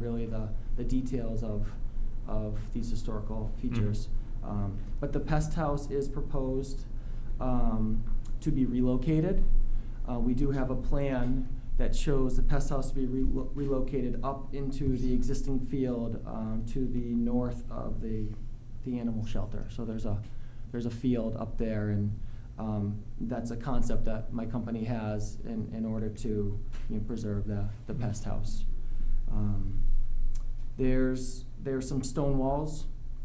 really the, the details of, of these historical features. Um, But the pest house is proposed um, to be relocated. Uh, We do have a plan that shows the pest house to be relo- relocated up into the existing field um, to the north of the, the animal shelter. So there's a, there's a field up there and um, that's a concept that my company has in, in order to, you know, preserve the, the pest house. Um, There's, there's some stone walls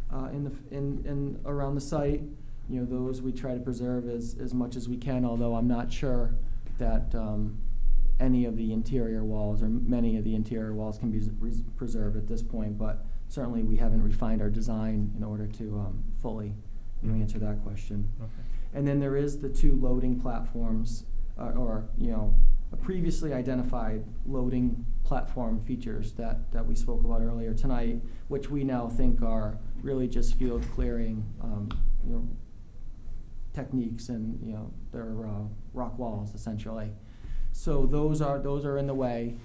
uh, in the, f- in, in, around the site. You know, those we try to preserve as, as much as we can, although I'm not sure that um, any of the interior walls or many of the interior walls can be s- res- preserved at this point. But certainly, we haven't refined our design in order to um, fully, you know, answer that question. And then there is the two loading platforms, uh, or, you know, previously identified loading platform features that, that we spoke about earlier tonight, which we now think are really just field clearing, um, you know, techniques and, you know, they're, uh, rock walls essentially. So those are, those are in the way,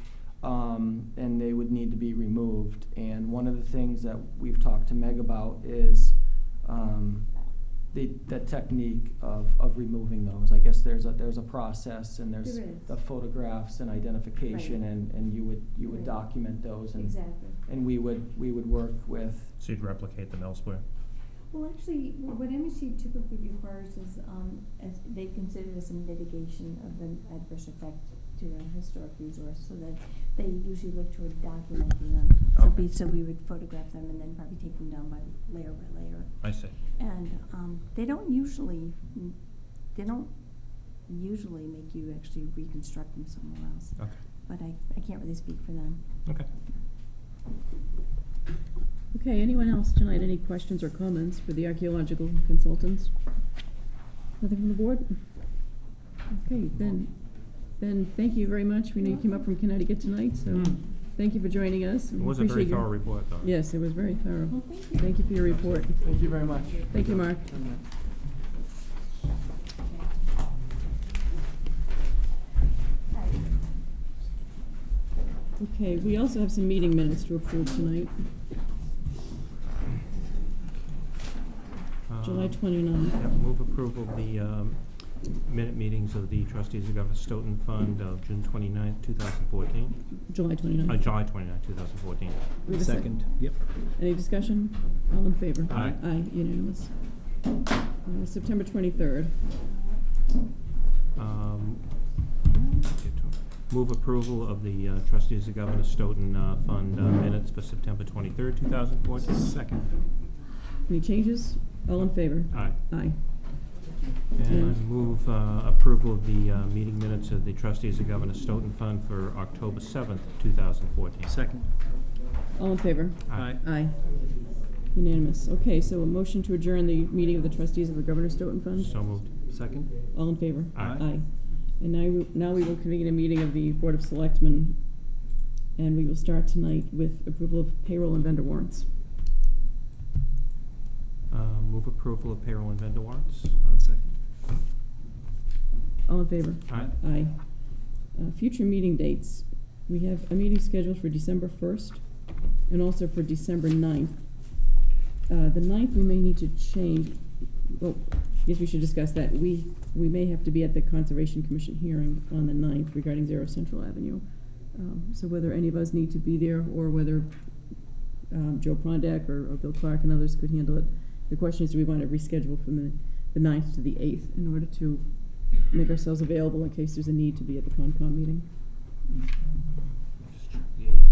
um, and they would need to be removed. And one of the things that we've talked to Meg about is, um, the, the technique of, of removing those. I guess there's a, there's a process and there's There is. the photographs and identification Right. and, and you would, you would Right. document those and, Exactly. and we would, we would work with, So you'd replicate them elsewhere? Well, actually, what MSU typically requires is, um, as they consider this a mitigation of an adverse effect to a historic resource, so that they usually look toward documenting them. So Okay. we, so we would photograph them and then probably take them down by layer by layer. I see. And, um, they don't usually, they don't usually make you actually reconstruct them somewhere else. Okay. But I, I can't really speak for them. Okay. Mm-hmm. Okay, anyone else tonight, any questions or comments for the archaeological consultants? Nothing from the board? Okay, then, then thank you very much. We know you came up from Connecticut tonight, so Mm. thank you for joining us. It was a very thorough report. report, though. Yes, it was very thorough. Well, thank you. Thank you for your report. thank you very much. Thank you, Mark. Okay, we also have some meeting minutes to approve tonight, Um, July yeah, 29th. Move approval of the um, minute meetings of the trustees of Everett Stoughton Fund of June 29th, 2014. July Uh, 29th. July 29th, 2014. We have a Second, yep. Any discussion? All in favor? Aye. Aye, unanimous. Uh, September 23rd. Um, get to- Move approval of the uh, trustees of Governor Stoughton uh, Fund uh, minutes for September 23rd, 2014. Second, Any changes? All in favor? Aye. Aye. And I Mm. move uh, approval of the uh, meeting minutes of the trustees of Governor Stoughton Fund for October 7th, 2014. second. All in favor? Aye. Aye. Unanimous. Okay, so a motion to adjourn the meeting of the trustees of the Governor Stoughton Fund. So moved. Second, All in favor? Aye. Aye. And now, we- now we will convene a meeting of the Board of Selectmen, and we will start tonight with approval of payroll and vendor warrants. Uh, Move approval of payroll and vendor warrants. I'll second. All in favor? Aye. Aye. Uh, future meeting dates. We have a meeting scheduled for December first and also for December 9th. Uh, the 9th we may need to change, well, yes, we should discuss that. We, we may have to be at the Conservation Commission hearing on the 9th regarding Zero Central Avenue. Um, so whether any of us need to be there or whether, um, Joe Prondak or, or Bill Clark and others could handle it. The question is, do we want to reschedule from the, the 9th to the eighth in order to make ourselves available in case there's a need to be at the Concom meeting? Just check the eighth.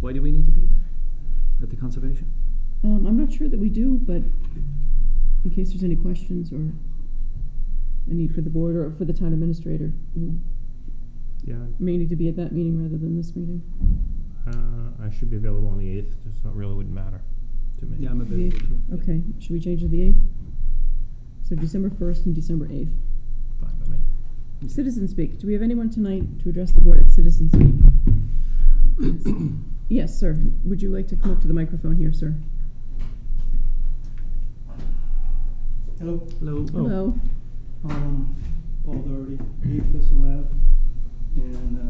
Why do we need to be there? At the conservation? Um, I'm not sure that we do, but in case there's any questions or a need for the board or for the town administrator, you Yeah, may need to be at that meeting rather than this meeting. uh, I should be available on the 8th, so it really wouldn't matter to me. Yeah, I'm The available eighth. too. Okay, should we change to the eighth? So December first and December eighth. Fine by me. Citizen speak. Do we have anyone tonight to address the board at citizen speak? Yes, sir. Would you like to come up to the microphone here, sir? Hello, Oh, Hello. Hello. um, Paul Doherty, Eighth Thistle Ave, and, uh,